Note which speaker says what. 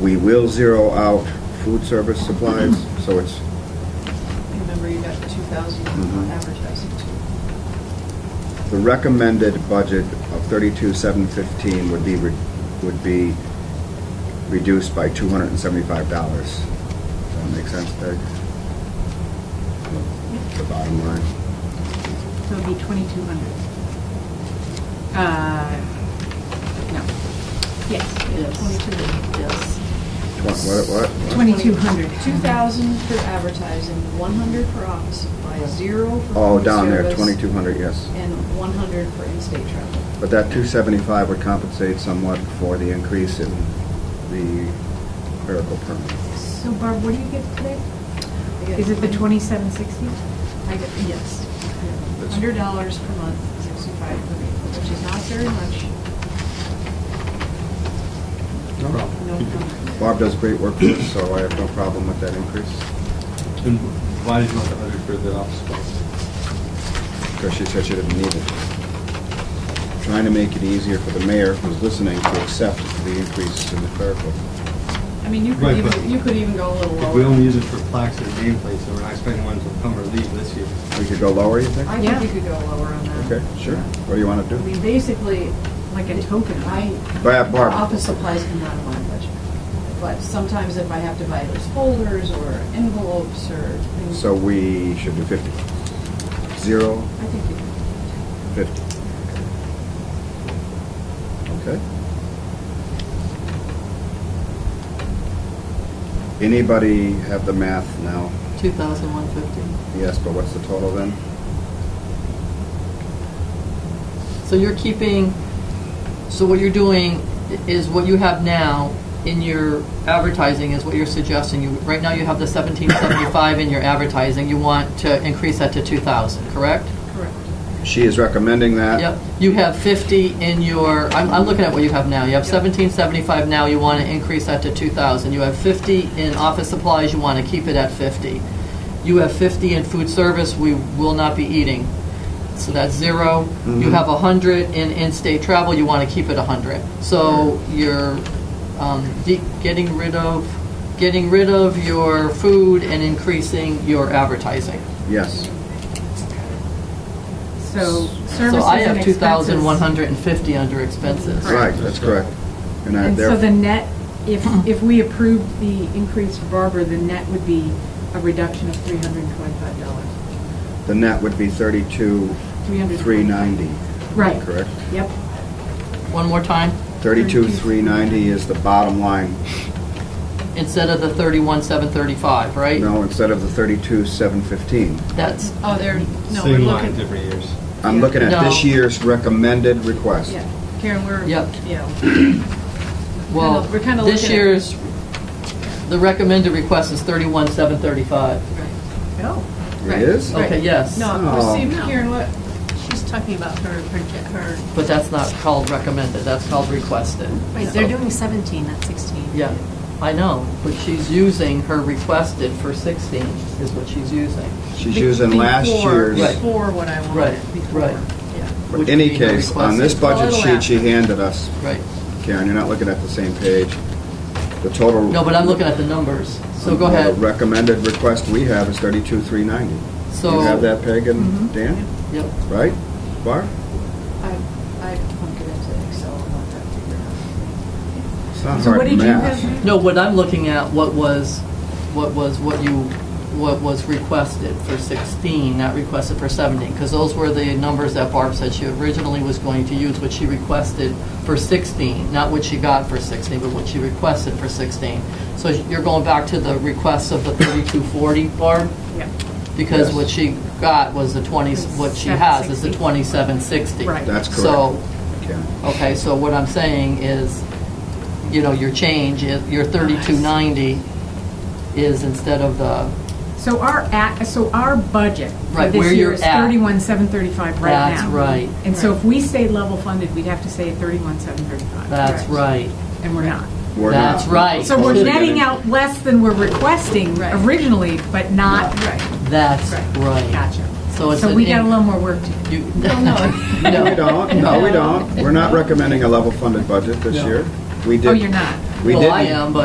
Speaker 1: We will zero out food service supplies, so it's,
Speaker 2: Remember, you got two thousand
Speaker 1: Mhm.
Speaker 2: on advertising too.
Speaker 1: the recommended budget of thirty-two, seven fifteen would be, re- would be reduced by two hundred and seventy-five dollars. Does that make sense, Peg? The bottom line.
Speaker 3: So it'd be twenty-two hundred. Uh, no.
Speaker 2: Yeah,
Speaker 3: Yes.
Speaker 2: Twenty-two. Yes.
Speaker 1: Twen- What, what? what?
Speaker 3: Twenty-two hundred.
Speaker 2: Two thousand for advertising, one hundred for office supplies, zero for.
Speaker 1: Oh,
Speaker 2: food
Speaker 1: down there,
Speaker 2: service,
Speaker 1: twenty-two hundred, yes.
Speaker 2: And one hundred for in-state travel.
Speaker 1: But that two seventy-five would compensate somewhat for the increase in the clerical permit.
Speaker 3: So Barb, what do you get today?
Speaker 2: I get
Speaker 3: Is it the
Speaker 2: one-
Speaker 3: twenty-seven sixty?
Speaker 2: I get, yes.
Speaker 1: That's-
Speaker 2: Hundred dollars per month, sixty-five per week, which is not very much.
Speaker 1: No
Speaker 2: No comment.
Speaker 1: Barb does great work for us, so I have no problem with that increase,
Speaker 4: And why did you want the hundred for the office supplies?
Speaker 1: because she said she didn't need it. Trying to make it easier for the mayor who's listening to accept the increase in the clerical.
Speaker 2: I mean, you could
Speaker 4: Right, but-
Speaker 2: even, you could even go a little lower.
Speaker 4: If we only use it for plaques and nameplates, and we're not expecting one to come or leave this year.
Speaker 1: We could go lower, you think?
Speaker 2: I
Speaker 3: Yeah.
Speaker 2: think we could go lower on that.
Speaker 1: Okay, sure. What do you want to
Speaker 2: I mean,
Speaker 1: do?
Speaker 2: basically,
Speaker 3: Like a token?
Speaker 2: I,
Speaker 1: Bar- Barb.
Speaker 2: office supplies come out of my budget. But sometimes if I have to buy those folders or envelopes or things.
Speaker 1: So we should do fifty. Zero,
Speaker 2: I think you could.
Speaker 1: fifty. Okay. Anybody have the math now?
Speaker 5: 2,150.
Speaker 1: Yes, but what's the total then?
Speaker 5: So you're keeping, so what you're doing i- is what you have now in your advertising is what you're suggesting. You, right now you have the 1775 in your advertising. You want to increase that to 2,000, correct?
Speaker 2: Correct.
Speaker 1: She is recommending that.
Speaker 5: Yep. You have 50 in your, I'm, I'm looking at what you have now. You have
Speaker 2: Yep.
Speaker 5: 1775 now, you want to increase that to 2,000. You have 50 in office supplies, you want to keep it at 50. You have 50 in food service, we will not be eating. So that's zero. You
Speaker 1: Mhm.
Speaker 5: have 100 in in-state travel, you want to keep it 100. So you're um, de- getting rid of, getting rid of your food and increasing your advertising.
Speaker 1: Yes.
Speaker 3: So services and
Speaker 5: So I have
Speaker 3: expenses.
Speaker 5: 2,150 under expenses.
Speaker 3: Correct.
Speaker 1: Right, that's correct. And I
Speaker 3: And so the
Speaker 1: there,
Speaker 3: net, if, if we approved the increase for Barbara, the net would be a reduction of three hundred and twenty-five dollars.
Speaker 1: the net would be thirty-two, three ninety.
Speaker 3: Right.
Speaker 1: Correct?
Speaker 3: Yep.
Speaker 5: One more time,
Speaker 1: Thirty-two, three ninety is the bottom line.
Speaker 5: instead of the thirty-one, seven thirty-five, right?
Speaker 1: No, instead of the thirty-two, seven fifteen.
Speaker 5: That's,
Speaker 2: Oh, there, no, we're
Speaker 4: Same line,
Speaker 2: looking,
Speaker 4: different years.
Speaker 1: I'm looking at this
Speaker 5: No.
Speaker 1: year's recommended request.
Speaker 2: yeah, Karen, we're,
Speaker 5: Yep.
Speaker 2: yeah,
Speaker 5: well,
Speaker 2: We're kinda
Speaker 5: this
Speaker 2: looking at-
Speaker 5: year's, the recommended request is thirty-one, seven thirty-five.
Speaker 2: right.
Speaker 3: Oh.
Speaker 2: Right.
Speaker 1: It is?
Speaker 2: Right.
Speaker 5: Okay, yes.
Speaker 2: No, but see,
Speaker 3: Oh.
Speaker 2: Karen, what, she's talking about her, her,
Speaker 5: But that's not called recommended, that's called requested.
Speaker 6: Right, they're doing 17, not 16.
Speaker 5: Yeah, I know, but she's using her requested for sixteen is what she's using.
Speaker 1: She's using last
Speaker 2: before-
Speaker 1: year's.
Speaker 5: Right.
Speaker 2: Before what I wanted,
Speaker 5: Right,
Speaker 2: before.
Speaker 5: right.
Speaker 2: Yeah.
Speaker 1: But
Speaker 5: Which
Speaker 1: any
Speaker 5: would be the
Speaker 1: case, on
Speaker 5: request.
Speaker 1: this budget
Speaker 2: Total
Speaker 1: sheet she handed us,
Speaker 5: Right.
Speaker 1: Karen, you're not looking at the same page. The total.
Speaker 5: No, but I'm looking at the numbers, so go ahead.
Speaker 1: The recommended request we have is thirty-two, three ninety.
Speaker 5: So-
Speaker 1: You have that, Peg
Speaker 3: Mm-hmm.
Speaker 1: and Dan,
Speaker 5: Yep.
Speaker 1: right? Bar?
Speaker 2: I, I plunked it into Excel and let that figure out.
Speaker 1: It's not
Speaker 3: So
Speaker 1: hard
Speaker 3: what did you
Speaker 1: math.
Speaker 3: have?
Speaker 5: No, what I'm looking at, what was, what was, what you, what was requested for 16, not requested for 17, because those were the numbers that Barb said she originally was going to use, what she requested for 16, not what she got for 16, but what she requested for 16. So you're going back to the requests of the 3240, Barb?
Speaker 3: Yep.
Speaker 5: Because
Speaker 1: Yes.
Speaker 5: what she got was the 20, what she has is the
Speaker 3: 760.
Speaker 5: 2760.
Speaker 3: Right.
Speaker 1: That's
Speaker 5: So
Speaker 1: correct. Karen.
Speaker 5: Okay, so what I'm saying is, you know, your change, is- your 3290 is instead of the,
Speaker 3: So our at, so our budget for
Speaker 5: Right, where
Speaker 3: this
Speaker 5: you're
Speaker 3: year is
Speaker 5: at.
Speaker 3: thirty-one, seven thirty-five right now.
Speaker 5: That's right.
Speaker 3: And so if we stay level funded, we'd have to stay at thirty-one, seven thirty-five.
Speaker 5: that's right.
Speaker 3: And we're not.
Speaker 1: We're not.
Speaker 5: That's right.
Speaker 3: So we're
Speaker 1: Supposed to
Speaker 3: netting
Speaker 1: get
Speaker 3: out less than we're requesting
Speaker 2: Right.
Speaker 3: originally, but not,
Speaker 2: Right.
Speaker 5: That's
Speaker 3: Right.
Speaker 5: right.
Speaker 3: gotcha.
Speaker 5: So it's
Speaker 3: So
Speaker 5: an
Speaker 3: we got a
Speaker 5: in-
Speaker 3: little more work to do.
Speaker 5: You-
Speaker 2: no.
Speaker 1: No, we
Speaker 5: No.
Speaker 1: don't, no, we don't. We're not recommending a level funded budget this
Speaker 5: No.
Speaker 1: year. We did.
Speaker 3: Oh, you're not?
Speaker 1: We did.
Speaker 5: Well, I am, but